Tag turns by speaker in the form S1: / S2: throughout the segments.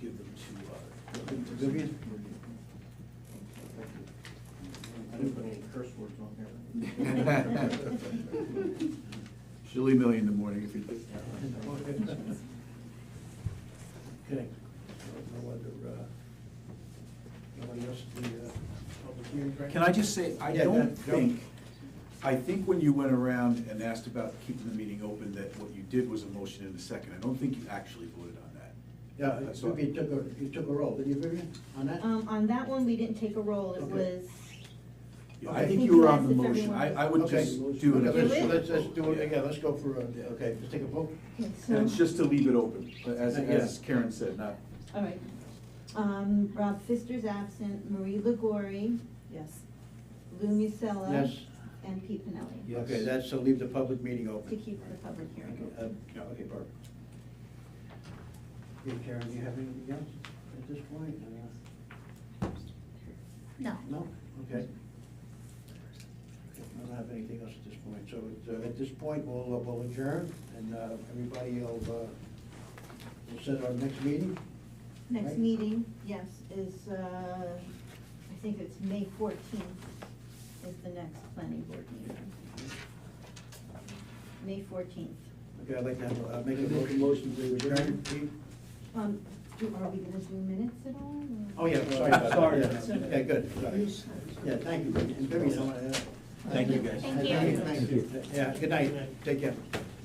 S1: give them to, uh,
S2: Vivian? Vivian? I didn't put any curse words on here.
S3: She'll email you in the morning if you do.
S1: Okay. No other, uh, nobody else at the, uh, public hearing, right?
S3: Can I just say, I
S1: Yeah,
S3: don't
S1: that-
S3: think, I think when you went around and asked about keeping the meeting open, that what you did was a motion and a second. I don't think you actually voted on that.
S2: Yeah,
S3: That's all.
S2: Vivian took a, you took a roll, did you, Vivian, on that?
S4: Um, on that one, we didn't take a roll, it
S2: Okay.
S4: was,
S3: Yeah,
S2: Okay.
S3: I think you were on the
S4: Because if
S3: motion. I,
S4: everyone-
S3: I would
S2: Okay.
S3: just do it. as a
S2: Okay, let's- Let's, let's do
S3: vote,
S2: it
S3: yeah.
S2: again, let's go for, a- yeah, okay, let's take a vote.
S4: okay, so.
S3: And it's just to leave it open, as,
S2: Yeah.
S3: as Karen said, not,
S4: All right. Um, Rob Fister's absent, Marie Legory,
S5: Yes.
S4: Lou Musella.
S2: Yes.
S4: And Pete Pinelli.
S3: Yes.
S2: Okay, that's to leave the public meeting open.
S4: To keep the public hearing
S2: Uh,
S4: open.
S2: yeah, Okay, Barb. Okay, Karen, do you have anything else at this point? Uh,
S4: No.
S2: No? Okay. I don't have anything else at this point, so uh, at this point, we'll, uh, we'll adjourn, and uh, everybody will, uh, we'll set our next meeting.
S4: Next
S2: Right.
S4: meeting, yes, is, uh, I think it's May fourteenth is the next planning board meeting. May fourteenth.
S2: Okay, I'd like to have, uh, make a
S1: Make a
S2: motion.
S1: motion to adjourn.
S2: Pete?
S4: Um, do, are we gonna do minutes at all?
S2: Oh,
S4: or-
S2: yeah, sorry about that.
S1: Sorry.
S2: Yeah, Yeah, good, sorry. Yeah, thank you. And Vivian, I wanna, uh,
S3: Thank you, guys.
S5: Thank
S2: Thank
S5: you.
S2: Thank you. Yeah, good night, take care.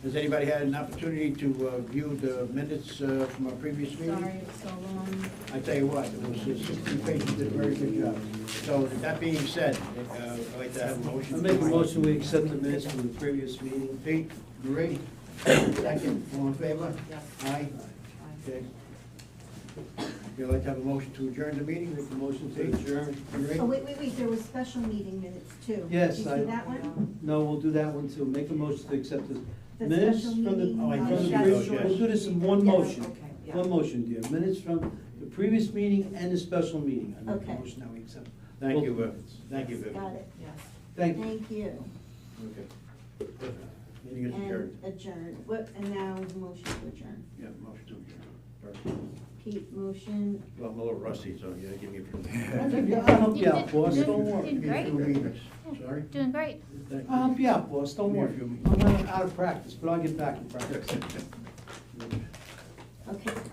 S2: Has anybody had an opportunity to uh, view the minutes uh, from our previous meeting?
S4: Sorry, it's so long.
S2: I tell you what, it was sixteen pages, did a very good job. So with that being said, uh, I'd like to have a motion.
S1: I make a motion, we accept the minutes from the previous meeting.
S2: Pete, Marie, second, all in favor?
S5: Yes.
S2: Aye. Okay. You'd like to have a motion to adjourn the meeting?
S1: Make a motion to adjourn.
S2: Marie?
S4: Oh, wait, wait, wait, there was special meeting minutes too.
S1: Yes,
S4: Did you
S1: I-
S4: see that one?
S1: No, we'll do that one too. Make a motion to accept the
S4: The
S1: minutes
S4: special
S1: from the,
S4: meeting,
S2: Oh, I
S1: from the
S2: missed
S1: previous,
S2: those, yes.
S1: we'll do this in one
S4: Yeah,
S1: motion.
S5: okay, yeah.
S1: One motion, dear. Minutes from the previous meeting and the special meeting. I make a
S4: Okay.
S1: motion that we accept.
S2: Thank you, uh, thank you, Vivian.
S4: Got it.
S5: Yes.
S1: Thank you.
S4: Thank you.
S2: Okay. Meeting is adjourned.
S4: And adjourn. What, and now motion to adjourn.
S2: Yeah, motion to adjourn.
S4: Pete, motion.
S2: Well, I'm a little rusty, so yeah, give me a
S3: That's
S2: few.
S3: okay.
S1: Yeah, I'll help you out,
S6: did-
S1: boss.
S6: did-
S1: Don't worry.
S6: did
S2: Give me a few
S6: great.
S2: minutes. Sorry?
S6: Doing great.
S2: Thank
S1: I'll help
S2: you.
S1: you out, boss, don't worry. I'm out of practice, but I'll get back in practice.
S4: Okay,